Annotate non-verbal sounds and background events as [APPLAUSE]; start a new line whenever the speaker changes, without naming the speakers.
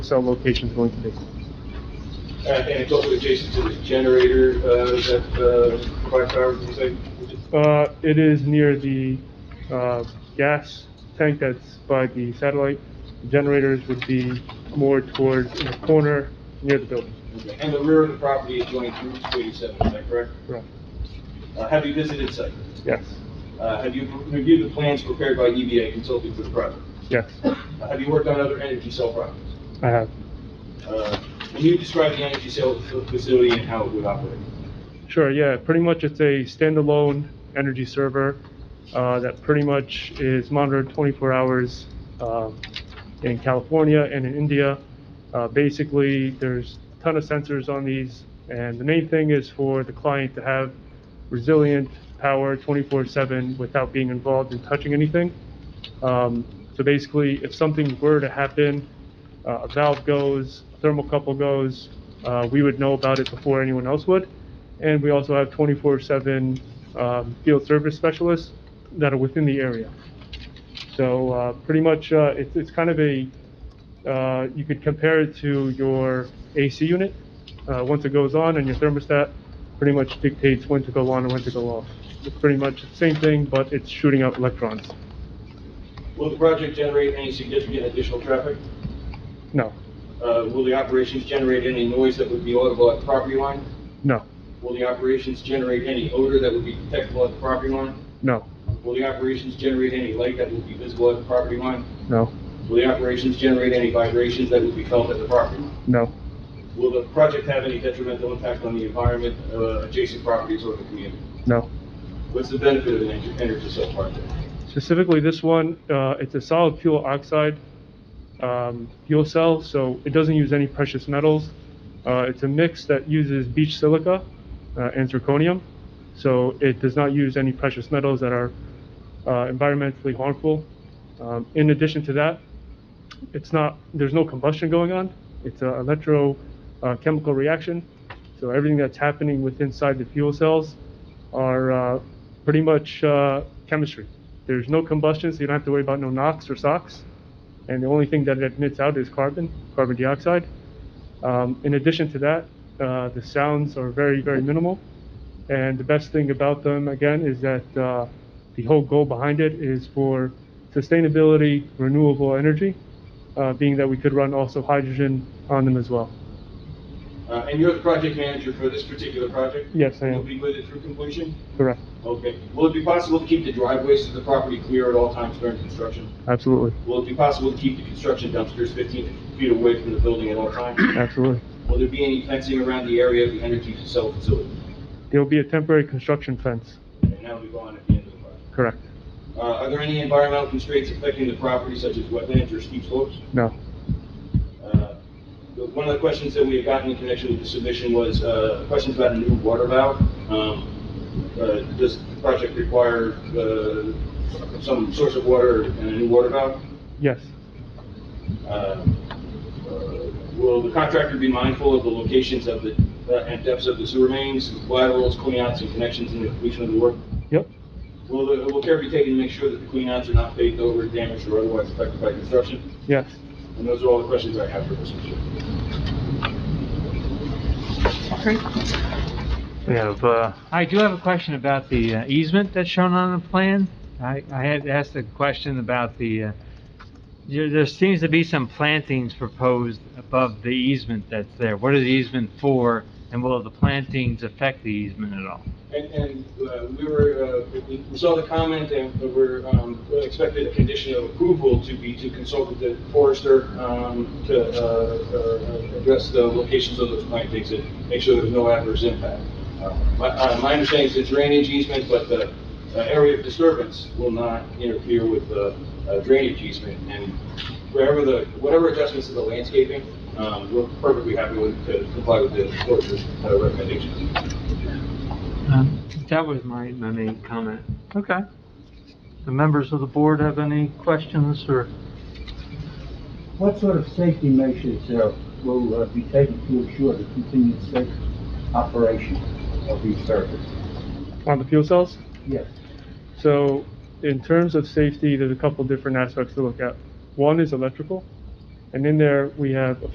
cell location is going to be?
And it's also adjacent to the generator uh, that uh, provides power, you say?
Uh, it is near the, uh, gas tank that's by the satellite. Generators would be more towards in the corner near the building.
And the rear of the property adjoins Route 287, is that correct?
Correct.
Uh, Have you visited site?
Yes,
Uh, Have you reviewed the plans prepared by EBA consulting for the project?
yes,
Uh, Have you worked on other energy cell projects?
I have.
Uh, Can you describe the energy cell f- facility and how it would operate?
Sure, yeah, pretty much it's a standalone energy server uh, that pretty much is monitored 24 hours um, in California and in India. Uh, Basically, there's a ton of sensors on these, and the main thing is for the client to have resilient power 24/7 without being involved in touching anything. Um, So basically, if something were to happen, uh, a valve goes, thermocouple goes, uh, we would know about it before anyone else would. And we also have 24/7 um, field service specialists that are within the area. So uh, pretty much, uh, it's it's kind of a, uh, you could compare it to your AC unit. Uh, Once it goes on and your thermostat pretty much dictates when to go on and when to go off. It's pretty much the same thing, but it's shooting out electrons.
Will the project generate any significant additional traffic?
No,
Uh, Will the operations generate any noise that would be audible at the property line?
no,
Will the operations generate any odor that would be detectable at the property line?
no,
Will the operations generate any light that would be visible at the property line?
no,
Will the operations generate any vibrations that would be felt at the property line?
no,
Will the project have any detrimental impact on the environment, uh, adjacent properties, or the community?
no.
What's the benefit of an energy- energy cell project?
Specifically, this one, uh, it's a solid fuel oxide um, fuel cell, so it doesn't use any precious metals. Uh, It's a mix that uses beach silica uh, and zirconium, so it does not use any precious metals that are uh, environmentally harmful. Um, In addition to that, it's not, there's no combustion going on. It's an electrochemical reaction, so everything that's happening with inside the fuel cells are uh, pretty much uh, chemistry. There's no combustion, so you don't have to worry about no NOx or SOx. And the only thing that it emits out is carbon, carbon dioxide. Um, In addition to that, uh, the sounds are very, very minimal. And the best thing about them, again, is that uh, the whole goal behind it is for sustainability, renewable energy, uh, being that we could run also hydrogen on them as well.
Uh, And you're the project manager for this particular project?
Yes, I am.
You'll be with it through completion?
Correct.
Okay. Will it be possible to keep the driveways to the property clear at all times during construction?
Absolutely.
Will it be possible to keep the construction dumpsters 15 feet away from the building at all times? [COUGHS]
Absolutely.
Will there be any fencing around the area of the energy cell facility?
There'll be a temporary construction fence.
And that'll be gone at the end of the project.
Correct.
Uh, Are there any environmental constraints affecting the property such as wetlands or steep slopes?
No.
Uh, the- One of the questions that we had gotten in connection with the submission was uh, questions about a new water valve. Um, uh, Does the project require uh, some source of water and a new water valve?
Yes.
Uh, uh, Will the contractor be mindful of the locations of the, uh, and depths of the sewer mains, laterals, cleanouts, and connections in the completion of the work?
Yep.
Will the- will care be taken to make sure that the cleanouts are not baked over, damaged, or otherwise affected by construction?
Yes.
And those are all the questions I have for this issue.
We have, uh, I do have a question about the uh, easement that's shown on the plan. I, I had asked a question about the, uh, there, there seems to be some plantings proposed above the easement that's there. What is the easement for, and will the plantings affect the easement at all?
And, and uh, we were, uh, we we saw the comment and we were um, we expected a condition of approval to be to consult with the forester um, to uh, uh, address the locations of those plantings and make sure there's no adverse impact. Uh, My, uh, my understanding is it's drainage easement, but the uh, area of disturbance will not interfere with the uh, drainage easement. And wherever the, whatever adjustments to the landscaping, um, we're perfectly happy with, to comply with the forester's uh, recommendations.
Um,
That was my, my main comment.
Okay. The members of the board have any questions or?
What sort of safety measures uh, will uh, be taken to ensure the continued safe operation of these servers?
On the fuel cells?
Yes.
So in terms of safety, there's a couple different aspects to look at. One is electrical, and in there, we have a